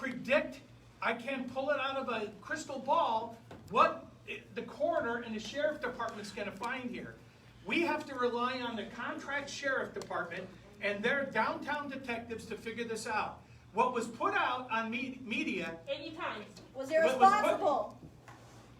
predict, I can't pull it out of a crystal ball, what i- the coroner and the sheriff department's gonna find here. We have to rely on the contract sheriff department and their downtown detectives to figure this out. What was put out on me- media, Eighty times. Was What was what? irresponsible.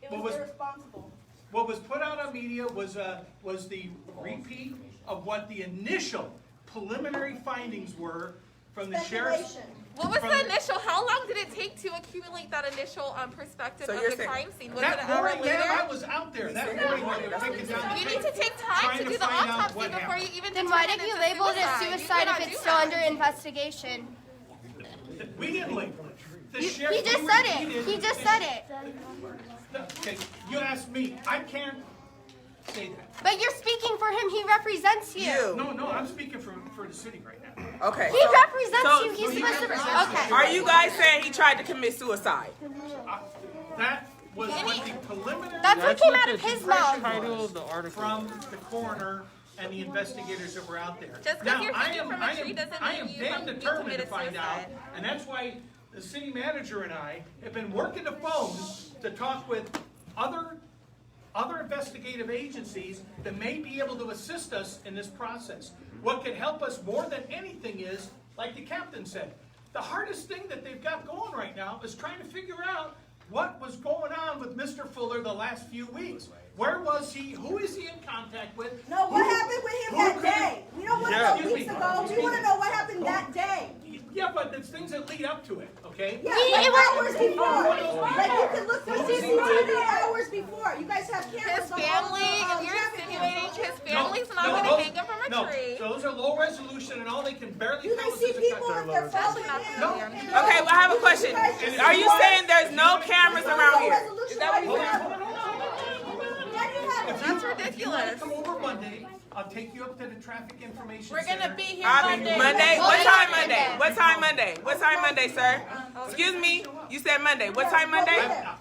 It What was was- irresponsible. what was put out on media was, uh, was the repeat of what the initial preliminary findings were from the sheriff's Speculation. What was From the the- initial? How long did it take to accumulate that initial um, perspective So of you're the saying- crime scene? Was it That an hour morning, later? yeah, I was out there. That morning, when they were taking down the You need picture, to take time trying to do the find out autopsy what before you happened. even. Then why determine didn't you it's a label it as You suicide cannot if it's do still that. under investigation? We didn't leave. The You, sheriff- he just we said it. repeated- He just said it. Okay, you asked me. I can't say that. But you're speaking for him. He represents you. You. No, no, I'm speaking for, for the city right now. Okay. He so- represents so- you. so He's he supposed to. represents Okay. Are you guys saying he tried to commit suicide? I- That was what the preliminary. That's what came out of his mouth. Title of the article. from the coroner and the investigators that were out there. Just 'cause Now, you're I hanging am- from a I am- tree doesn't I mean am you damn haven't determined to committed find out, suicide. And that's why the city manager and I have been working the phones to talk with other, other investigative agencies that may be able to assist us in this process. What could help us more than anything is, like the captain said, the hardest thing that they've got going right now is trying to figure out what was going on with Mr. Fuller the last few weeks. Where was he? Who is he in contact with? No, what happened with him who that could- day? We don't want to Yeah. know weeks Excuse me. ago. We want to know what happened that day. Yeah, but it's things that lead up to it, okay? Yeah, We- like it was- hours before. Like you can look through CCTV hours before. You guys have cameras His on all family, the um, if you're traffic insinuating cameras. his No, family's not no, going to those- hang him from a no, tree. Those are low resolution and all they can barely You tell guys us see is a people cut. if they're That's following not him. gonna and- happen. you Okay, know, well, I have a you question. guys just- Are you saying there's no cameras around here? Is that what Hold you're on, saying? hold on, hold on. Why do you have it? That's If you wanna ridiculous. come over Monday, I'll take you up to the traffic information We're gonna center. be here I mean, Monday. Monday? What time Monday? What time Monday? What time Monday, sir? Excuse me? You said Monday. What time Monday? I- I-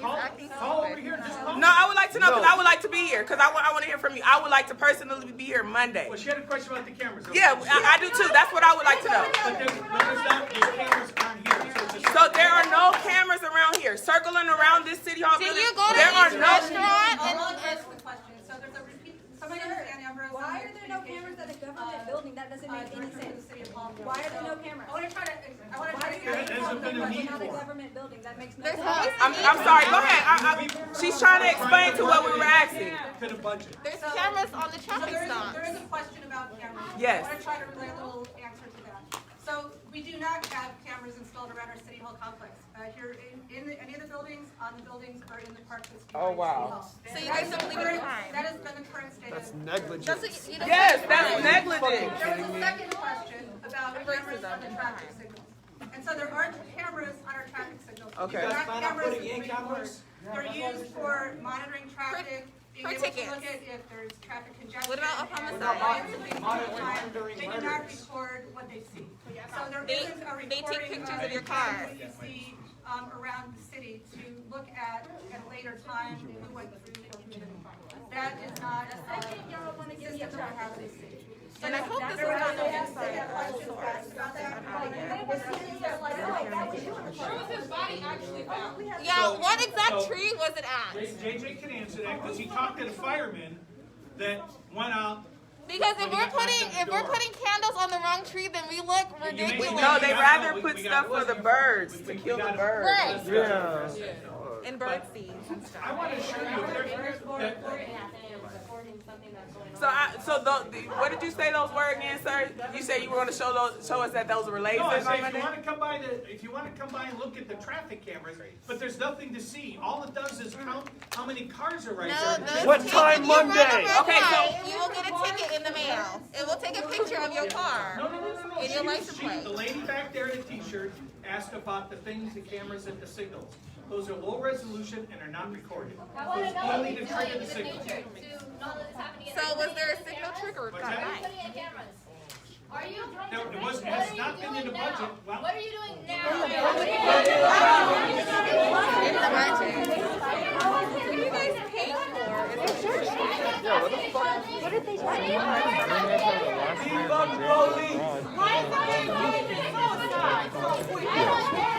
Call, call over here, just call. No, I would like to know because I would like to be here because I want, I want to hear from you. I would like to personally be here Monday. Well, she had a question about the cameras. okay? Yeah, I, I do too. That's what I would like to know. But there's, but there's not, the cameras aren't here, so it's just. So there are no cameras around here circling around this city hall. Did building? you go to there are each no restaurant and I'll address the question. So there's a repeat, somebody Sir, understand Ambrose. Why are there no cameras at a government building? That doesn't make any sense. Why are there no cameras? I wanna try to, I wanna Why try are to. there There hasn't been a cameras need at a for it. government building? That makes no There's sense. always I'm, I'm sorry. Go ahead. I, I, she's trying to explain to what we were asking. To the budget. there's cameras on the So traffic there is, stop. there is a question about cameras. Yes. I wanna try to relay a little answer to that. So we do not have cameras installed around our city hall complex. Uh, here in, in the- any of the buildings, on the buildings, or in the parks that's behind Oh, wow. city hall. So you guys don't leave it behind. That has been the current state of. That's what you, you don't Yes, that's negligent. There was a second question about cameras on the traffic signals. And so there are cameras on our traffic signals. Okay. You They're guys not plan on cameras putting in with billboards. They're used for monitoring traffic, being for able to look tickets. at if there's traffic congestion. What about a and homicide? riots and things like Monitoring that. during They do not murders. record what they see. So there They- isn't a they take recording pictures of your cameras car. that you see, um, around the city to look at at a later time who went through and committed the crime. That is not a system that we have in the city. And I hope this was not noticed. Yeah, So- what exact so- tree was it at? J- JJ can answer that, because he talked to the firemen that went out. Because Well, if you we're got knocked putting out the if we're door. putting candles on the wrong tree, then we look You may- ridiculous. No, they we gotta- rather we- put we stuff gotta- for the birds, to we kill the gotta- birds. Right. Yeah. And bird seed. I want to assure you, there's, that- So, I, so tho- the, what did you say those were again, sir? You said you were going to show those, show us that those were lasers No, I on say if Monday? you wanna come by the, if you wanna come by and look at the traffic cameras, but there's nothing to see, all it does is count how many cars are right No, there. those What tickets- time you run a Monday? red Okay, so- light, you will get a ticket in the mail. It will take a picture of your No, car. no, no, no, no, And your she, license she, plate. the lady back there in the t-shirt asked about the things, the cameras and the signals. Those are low resolution and are not recorded. Those only the tree and the signal. So was there a signal trigger What's got that? by? Are you trying No, to? it was, it has not been in the budget, well. What are you doing now? It's the budget. What do you guys pay for? Is it Why is that?